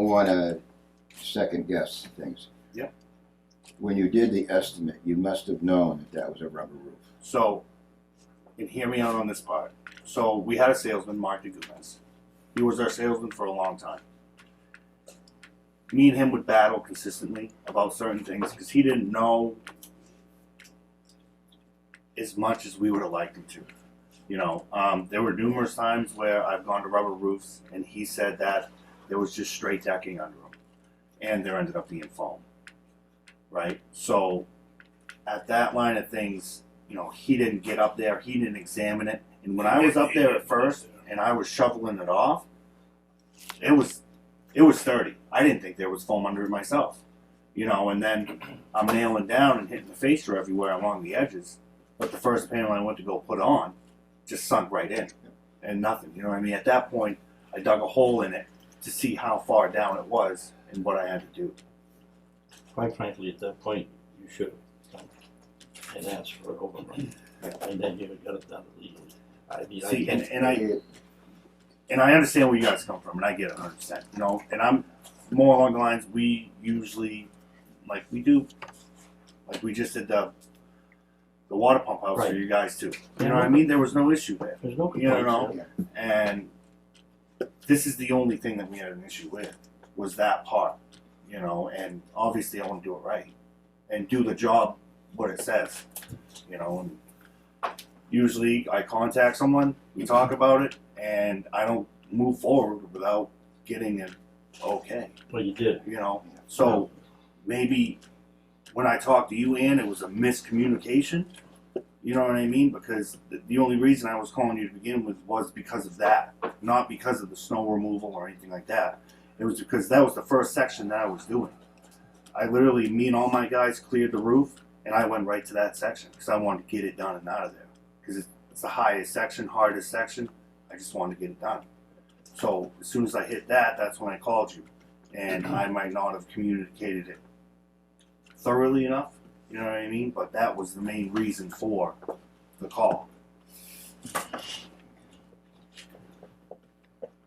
I want to second guess things. Yep. When you did the estimate, you must have known that that was a rubber roof. So, and hear me out on this part. So we had a salesman, Mark DeGomez. He was our salesman for a long time. Me and him would battle consistently about certain things because he didn't know as much as we would have liked him to. You know, um, there were numerous times where I've gone to rubber roofs and he said that there was just straight decking under them, and there ended up being foam. Right. So, at that line of things, you know, he didn't get up there, he didn't examine it. And when I was up there at first and I was shoveling it off, it was it was thirty. I didn't think there was foam under it myself. You know, and then I'm nailing down and hitting the facer everywhere along the edges. But the first panel I went to go put on just sunk right in. And nothing. You know what I mean? At that point I dug a hole in it to see how far down it was and what I had to do. Quite frankly, at that point, you should have come and asked for an overrun, and then you would got it done legally. I mean, I See, and, can't, and I and I understand where you guys come from, and I get it 100. percent You know, and I'm more along the lines we usually like we do, like we just did the the water pump house for Right. you guys too. You know what I mean? There was no issue there, there's no you know, complaints. and this is the only thing that we had an issue with was that part. You know, and obviously I want to do it right and do the job what it says. You know, and usually I contact someone, we talk about it, and I don't move forward without getting an okay. Well, you did. You know, so maybe when I talked to you, Ann, it was a miscommunication. You know what I mean? Because the, the only reason I was calling you to begin with was because of that, not because of the snow removal or anything like that. It was because that was the first section that I was doing. I literally, me and all my guys cleared the roof, and I went right to that section because I wanted to get it done and out of there. Because it's, it's the highest section, hardest section. I just wanted to get it done. So as soon as I hit that, that's when I called you, and I might not have communicated it thoroughly enough. You know what I mean? But that was the main reason for the call.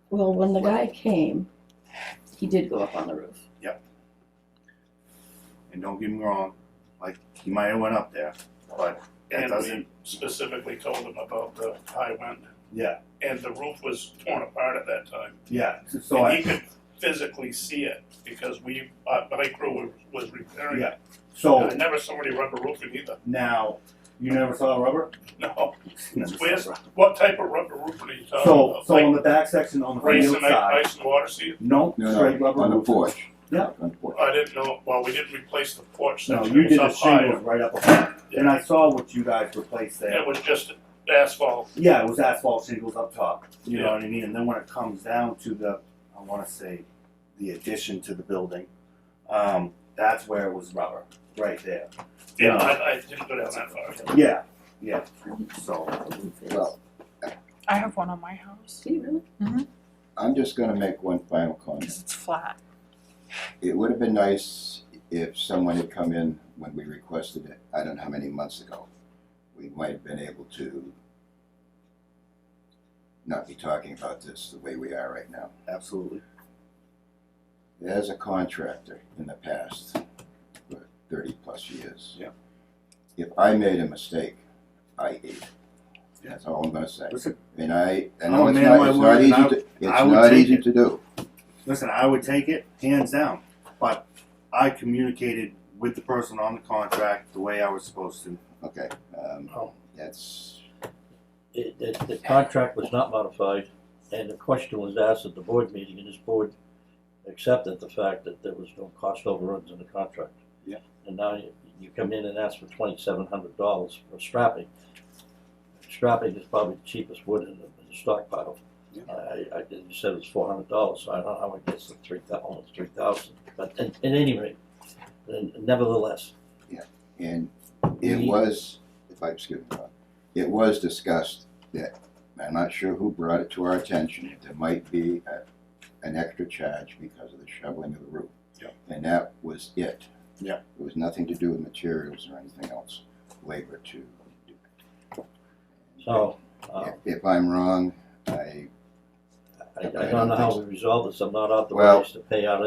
Well, when the guy came, he did go up on the roof. And don't get me wrong, like he might have went up there, but that And doesn't. we specifically told him about the high wind, Yeah, and the roof was torn apart at that time. yeah. So, so And I, he could physically see it, because we, uh, my crew was repairing it. so I never saw any rubber roofing either, now you never saw rubber. no. Never saw Where's- rubber. What type of rubber roofing are you talking So about? so on Like the back section on the racing field ice, side, ice and water seat? no, No, straight no, rubber on the roof. porch. Yeah. On the porch. I didn't know, well, we didn't replace the porch No, section, you it was did the up higher. shingles right up above, and I saw what you guys replaced there. It was just asphalt, Yeah, it was asphalt shingles up top. You know Yeah. what I mean? And then when it comes down to the, I want to say, the addition to the building, um, that's where it was rubber, right there. yeah, Yeah. I, I didn't go down that far. Yeah, yeah. So, Well, I have one on my house See, really? I'm just going to make one final comment. because it's flat. It would have been nice if someone had come in when we requested it, I don't know how many months ago. We might have been able to not be talking about this the way we are right now. absolutely. as a contractor in the past, for thirty plus years. Yeah. If I made a mistake, I ate it. That's all I'm gonna say. Listen. And I, I I'm know a it's man of not, my it's word, not and easy I- to, it's I would not take easy it. to do. Listen, I would take it hands down, but I communicated with the person on the contract the way I was supposed to. Okay, um, Oh. that's, It, the, the contract was not modified, and the question was asked at the board meeting, and this board accepted the fact that there was no cost overruns in the contract. Yeah. And now you, you come in and ask for twenty-seven hundred dollars for strapping. Strapping is probably the cheapest wood in the, in the stockpile. Yeah. I, I, you said it was four hundred dollars, so I don't know how it gets to three thou, almost three thousand, but at, at any rate, then nevertheless, and it We- was, if I, excuse me, Bob, it was discussed that, I'm not sure who brought it to our attention, there might be a, an extra charge because of the shoveling of the roof. Yeah. And that was it. Yeah. It was nothing to do with materials or anything else, labor to. so, uh, If, if I'm wrong, I I, I don't know how we resolve this, I'm not authorized to pay out